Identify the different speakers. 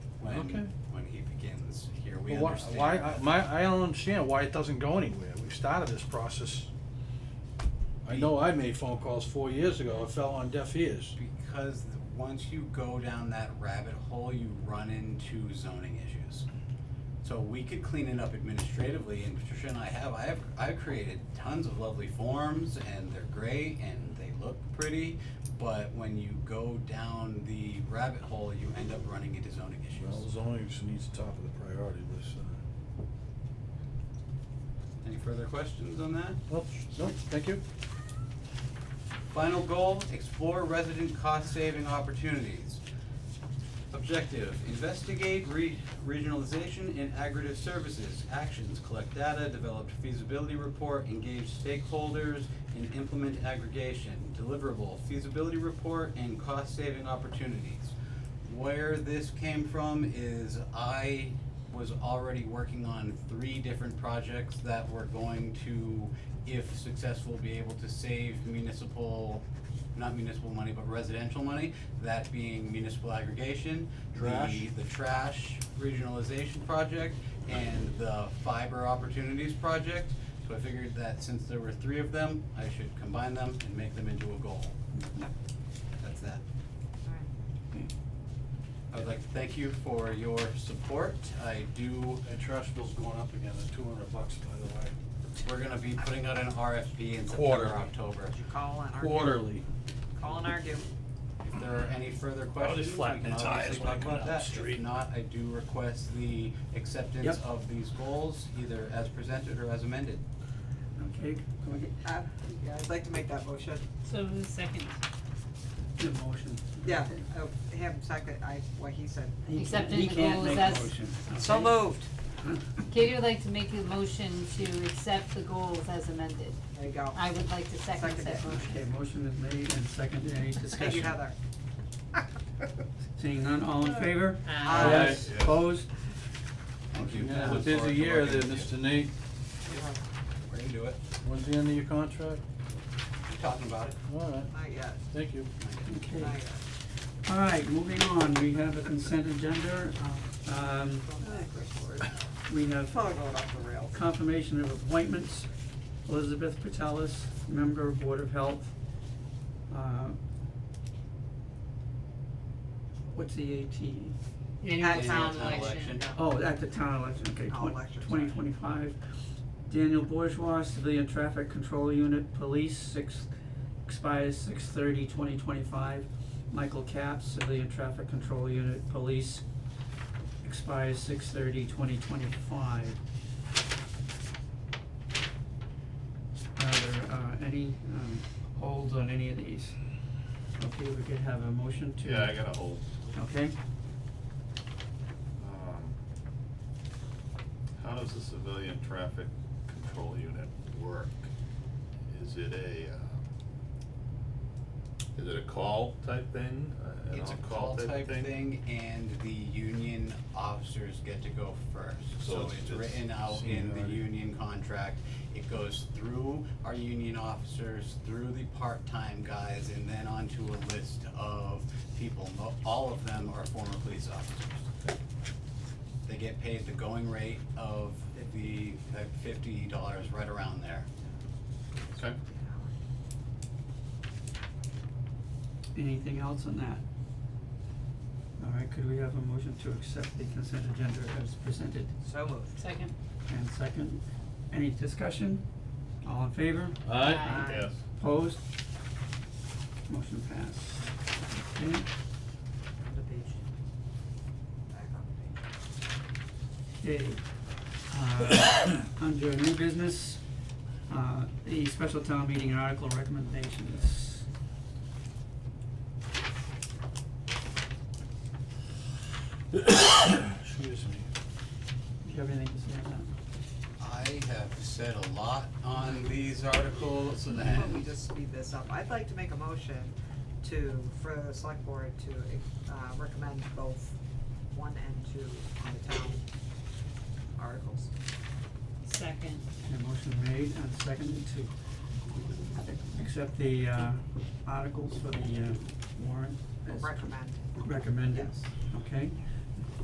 Speaker 1: Okay.
Speaker 2: when he begins, here we
Speaker 1: Well, why-
Speaker 2: understand.
Speaker 1: Why, I- my, I don't understand why it doesn't go anywhere. We've started this process. I know I made phone calls four years ago. It fell on deaf ears.
Speaker 2: Because th- once you go down that rabbit hole, you run into zoning issues. So we could clean it up administratively, and Patricia and I have, I have, I've created tons of lovely forms, and they're great, and they look pretty, but when you go down the rabbit hole, you end up running into zoning
Speaker 1: Well,
Speaker 2: issues.
Speaker 1: zoning just needs top of the priority list. uh,
Speaker 2: Any further questions on that?
Speaker 1: Nope, nope, thank you.
Speaker 2: Final goal, explore resident cost-saving opportunities. Objective, investigate re- regionalization in aggregate services, actions, collect data, develop feasibility report, engage stakeholders, and implement aggregation. Deliverable, feasibility report and cost-saving opportunities. Where this came from is I was already working on three different projects that were going to, if successful, be able to save municipal, not municipal money, but residential money. That being municipal aggregation,
Speaker 1: Trash.
Speaker 2: the, the trash regionalization project, and the fiber opportunities project. So I figured that since there were three of them, I should combine them and make them into a goal. That's that. I would like to thank you for your support. I do,
Speaker 1: And trash bill's going up again at two hundred bucks, by the way.
Speaker 2: we're gonna be putting out an RFP in
Speaker 1: Quarterly.
Speaker 2: September, October.
Speaker 3: You call and argue.
Speaker 1: Quarterly.
Speaker 3: Call and argue.
Speaker 2: If there are any further
Speaker 4: I'll
Speaker 2: questions,
Speaker 4: just
Speaker 2: we
Speaker 4: flatten
Speaker 2: can
Speaker 4: the tires
Speaker 2: obviously
Speaker 4: when I
Speaker 2: talk
Speaker 4: come
Speaker 2: about
Speaker 4: down the
Speaker 2: that. If
Speaker 4: street.
Speaker 2: not, I do request the acceptance
Speaker 1: Yep.
Speaker 2: of these goals, either as presented or as amended.
Speaker 5: Okay, can we get, uh, yeah, I'd like to make that motion.
Speaker 6: So who's second?
Speaker 5: The motion.
Speaker 7: Yeah, oh,
Speaker 5: uh,
Speaker 7: him second, I, what he said.
Speaker 5: He
Speaker 6: Except
Speaker 5: can't- he
Speaker 6: in the
Speaker 5: can't
Speaker 6: goals
Speaker 5: make a
Speaker 6: as-
Speaker 5: motion,
Speaker 3: So
Speaker 5: okay?
Speaker 3: moved.
Speaker 6: Katie would like to make a motion to accept the goals as amended.
Speaker 7: There you go.
Speaker 6: I would like to second that
Speaker 5: Okay,
Speaker 6: motion.
Speaker 5: motion is made and seconded, any
Speaker 7: Thank you,
Speaker 5: discussion?
Speaker 7: Heather.
Speaker 5: Seeing none, all in favor?
Speaker 6: Aye.
Speaker 7: Aye.
Speaker 5: Yes. Opposed?
Speaker 2: Thank you.
Speaker 5: Motion
Speaker 2: I
Speaker 1: It's
Speaker 2: look
Speaker 1: a
Speaker 5: passed.
Speaker 1: busy
Speaker 2: forward to
Speaker 1: year
Speaker 2: working
Speaker 1: there,
Speaker 2: with
Speaker 1: Mr.
Speaker 2: you.
Speaker 1: Nate.
Speaker 2: We're gonna do it.
Speaker 1: When's the end of your contract?
Speaker 2: We're talking about it.
Speaker 1: All right,
Speaker 7: Not yet,
Speaker 1: thank you.
Speaker 5: Okay,
Speaker 7: not yet.
Speaker 5: all right, moving on, we have a consent agenda. Um, we have
Speaker 7: Phone going off the rails.
Speaker 5: confirmation of appointments, Elizabeth Patelis, member of Board of Health. Uh, What's the E? eighteen?
Speaker 6: Annual town
Speaker 2: Annual town
Speaker 6: election.
Speaker 2: election.
Speaker 5: Oh, at the town election, okay,
Speaker 7: Oh, election, sorry.
Speaker 5: twenty twenty-five. Daniel Bourgeois, Civilian Traffic Control Unit, Police, six, expires six thirty, twenty twenty-five. Michael Capps, Civilian Traffic Control Unit, Police, expires six thirty, twenty twenty-five. Are there, uh, any, um, holds on any of these? Okay, we could have a motion to.
Speaker 4: Yeah, I got a hold.
Speaker 5: Okay,
Speaker 4: Um, How does the civilian traffic control unit work? Is it a, um, is it a call type thing? Uh, an
Speaker 2: It's a
Speaker 4: on-call
Speaker 2: call type thing and the union officers get to go first.
Speaker 4: So
Speaker 2: So
Speaker 4: it's-
Speaker 2: it's
Speaker 4: it's
Speaker 2: written out in the
Speaker 1: seniority.
Speaker 2: union contract. It goes through our union officers, through the part-time guys, and then onto a list of people. Mo- All of them are former police officers. They get paid the going rate of the uh, fifty dollars, right around there.
Speaker 4: Okay.
Speaker 5: anything else on that? All right, could we have a motion to accept the consent agenda as presented?
Speaker 3: So moved.
Speaker 6: Second.
Speaker 5: And second, any discussion? All in favor?
Speaker 6: Aye.
Speaker 4: Yes.
Speaker 5: Opposed? Motion passed. Okay, Okay, uh, under new business, uh, the special town meeting and article recommendations.
Speaker 1: Excuse me.
Speaker 5: Do you have anything to say on
Speaker 2: I have said a lot on these articles and.
Speaker 7: Why don't we just speed this up? I'd like to make a motion to, for the select board to, uh, recommend both one and two on the town articles.
Speaker 6: Second.
Speaker 5: that? Okay, motion made and seconded to accept the, uh, articles for the, uh, warrant as
Speaker 7: Recommend,
Speaker 5: recommended.
Speaker 7: yes.
Speaker 5: Okay,